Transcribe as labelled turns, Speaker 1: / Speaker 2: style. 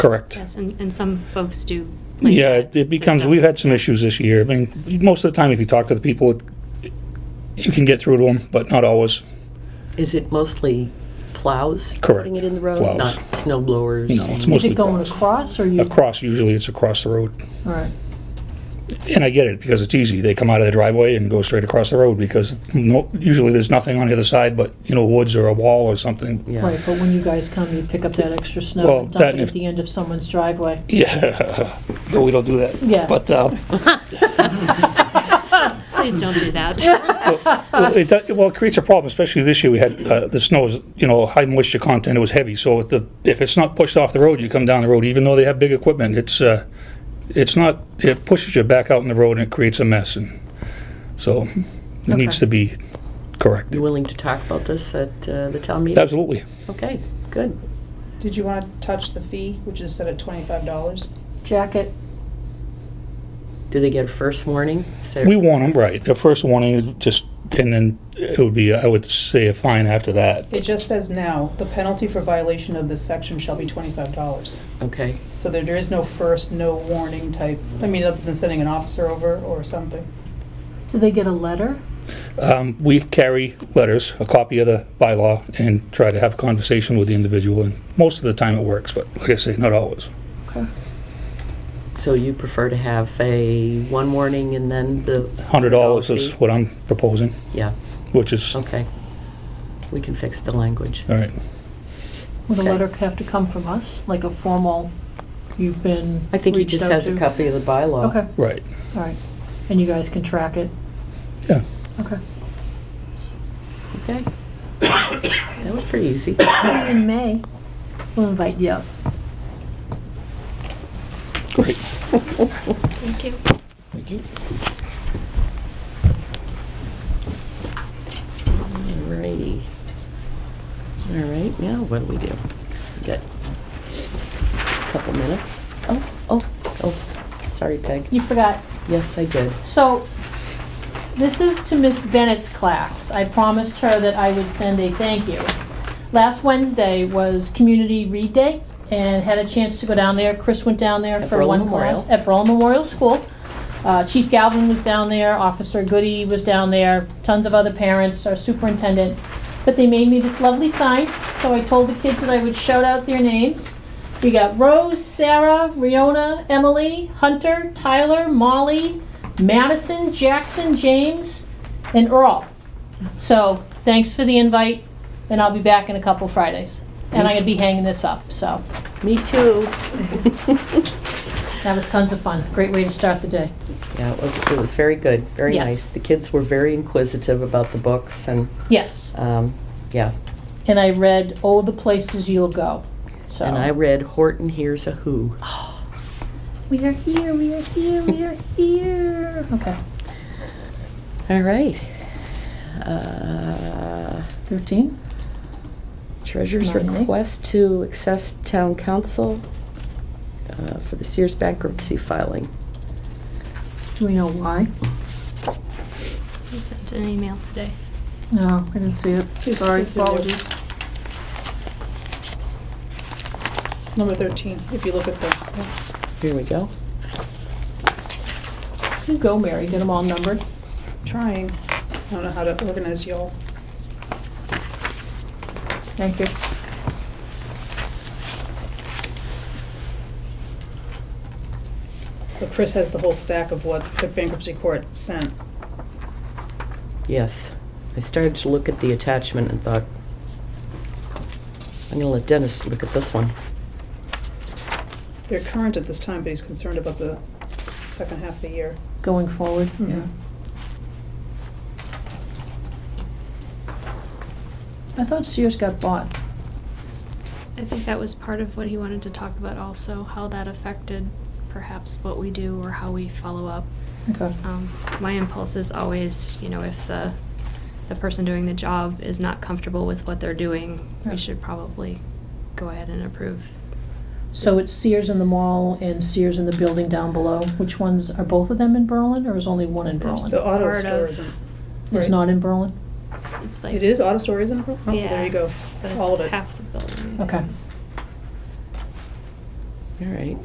Speaker 1: Correct.
Speaker 2: Yes, and, and some folks do. play
Speaker 1: Yeah, it-
Speaker 2: that
Speaker 1: it becomes,
Speaker 2: system.
Speaker 1: we've had some issues this year. I mean, most of the time, if you talk to the people, it- you can get through to them, but not always.
Speaker 3: Is it mostly plows?
Speaker 1: Correct.
Speaker 3: Putting it in the road?
Speaker 1: Plows.
Speaker 3: Not snow blowers?
Speaker 1: You know, it's
Speaker 3: and-
Speaker 4: Is
Speaker 1: mostly
Speaker 4: it going
Speaker 1: across.
Speaker 4: across or you?
Speaker 1: Across, usually it's across the road.
Speaker 4: All right.
Speaker 1: And I get it, because it's easy. They come out of the driveway and go straight across the road, because no, usually there's nothing on the other side but, you know, woods or a wall or something.
Speaker 3: Yeah.
Speaker 4: Right, but when you guys come, you pick up that extra
Speaker 1: Well,
Speaker 4: snow and
Speaker 1: that
Speaker 4: dump it
Speaker 1: if-
Speaker 4: at the end of someone's driveway.
Speaker 1: Yeah, no, we don't do that.
Speaker 4: Yeah.
Speaker 1: But, uh,
Speaker 2: Please don't do that.
Speaker 1: Well, it, does- well, it creates a problem, especially this year. We had uh, the snow is, you know, high moisture content. It was heavy, so if the if it's not pushed off the road, you come down the road. Even though they have big equipment, it's uh, it's not. It pushes you back out in the road and it creates a mess. And so, it needs to be corrected.
Speaker 3: You willing to talk about this at uh, the town meeting?
Speaker 1: Absolutely.
Speaker 3: Okay, good.
Speaker 5: Did you want to touch the fee, which is set at twenty-five dollars?
Speaker 4: Jacket,
Speaker 3: Do they get a first warning? Say-
Speaker 1: We want them right. The first warning is just, and then it would be. I would say a fine after that.
Speaker 5: It just says now, the penalty for violation of this section shall be twenty-five dollars.
Speaker 3: Okay,
Speaker 5: So there, there is no first, no warning type, I mean, other than sending an officer over or something.
Speaker 4: do they get a letter?
Speaker 1: Um, we carry letters, a copy of the bylaw, and try to have a conversation with the individual. And most of the time it works, but like I say, not always.
Speaker 3: so you prefer to have a one warning and then the?
Speaker 1: Hundred dollars is
Speaker 3: fee?
Speaker 1: what I'm proposing,
Speaker 3: Yeah,
Speaker 1: which is, all
Speaker 3: okay. We can fix the language.
Speaker 1: right.
Speaker 4: Would a
Speaker 3: Okay.
Speaker 4: letter have to come from us, like a formal, you've been
Speaker 3: I think he
Speaker 4: reached
Speaker 3: just
Speaker 4: out
Speaker 3: has a
Speaker 4: to?
Speaker 3: copy of the bylaw.
Speaker 4: Okay,
Speaker 1: Right.
Speaker 4: all right. And you guys can track it?
Speaker 1: Yeah.
Speaker 4: Okay.
Speaker 3: Okay. That was pretty easy.
Speaker 4: See you in May. We'll invite you up.
Speaker 1: Great.
Speaker 2: Thank you.
Speaker 3: Alrighty. All right, now what do we do? We Got a couple minutes. Oh, oh, oh, sorry, Peg.
Speaker 4: You forgot,
Speaker 3: Yes, I did.
Speaker 4: So, this is to Miss Bennett's class. I promised her that I would send a thank you. Last Wednesday was Community Read Day, and had a chance to go down there. Chris went down there
Speaker 3: At
Speaker 4: for
Speaker 3: Berlin
Speaker 4: one
Speaker 3: Memorial.
Speaker 4: class. At Berlin Memorial School. Uh, Chief Galvin was down there, Officer Goody was down there, tons of other parents, our superintendent. But they made me this lovely sign, so I told the kids that I would shout out their names. We got Rose, Sarah, Riona, Emily, Hunter, Tyler, Molly, Madison, Jackson, James, and Earl. So, thanks for the invite, and I'll be back in a couple Fridays. And I'm gonna be hanging this up, so
Speaker 3: Me too.
Speaker 4: that was tons of fun. Great way to start the day.
Speaker 3: Yeah, it was, it was very good, very
Speaker 4: Yes.
Speaker 3: nice. The kids were very inquisitive about the books and,
Speaker 4: Yes.
Speaker 3: um, yeah.
Speaker 4: and I read "Oh, the Places You'll Go." So
Speaker 3: And I read Horton Hears a Who.
Speaker 4: we are here, we are here, we are here. Okay,
Speaker 3: All right. Uh,
Speaker 4: thirteen.
Speaker 3: Treasurer's
Speaker 4: Marty?
Speaker 3: request to access town council uh, for the Sears bankruptcy filing.
Speaker 4: Do we know why?
Speaker 2: I sent an email today.
Speaker 4: No, I didn't see it. Sorry,
Speaker 5: It's in there.
Speaker 4: apologies.
Speaker 5: Number thirteen, if you look at the,
Speaker 3: Here we go.
Speaker 4: You go, Mary. Get them all numbered.
Speaker 5: trying, I don't know how to organize y'all.
Speaker 4: Thank you.
Speaker 5: But Chris has the whole stack of what the bankruptcy court sent.
Speaker 3: Yes. I started to look at the attachment and thought, I'm gonna let Dennis look at this one.
Speaker 5: They're current at this time, but he's concerned about the second half of the year.
Speaker 4: Going forward.
Speaker 5: Mhm.
Speaker 4: I thought Sears got bought.
Speaker 2: I think that was part of what he wanted to talk about also, how that affected perhaps what we do or how we follow up.
Speaker 4: Okay.
Speaker 5: Oh.
Speaker 2: Um, my impulse is always, you know, if the, the person doing the job is not comfortable with what they're doing,
Speaker 4: Yeah.
Speaker 2: we should probably go ahead and approve.
Speaker 4: So it's Sears in the mall and Sears in the building down below. Which ones are both of them in Berlin, or is only one in
Speaker 2: There's
Speaker 4: Berlin?
Speaker 5: The auto
Speaker 2: Part of-
Speaker 5: store isn't.
Speaker 4: It's
Speaker 5: right?
Speaker 4: not in Berlin.
Speaker 2: It's like.
Speaker 5: It is, auto store isn't, oh, there
Speaker 2: Yeah,
Speaker 5: you go,
Speaker 2: But
Speaker 5: all of
Speaker 2: it's
Speaker 5: it.
Speaker 2: half the building. I think
Speaker 4: Okay.
Speaker 2: it's-
Speaker 3: all right.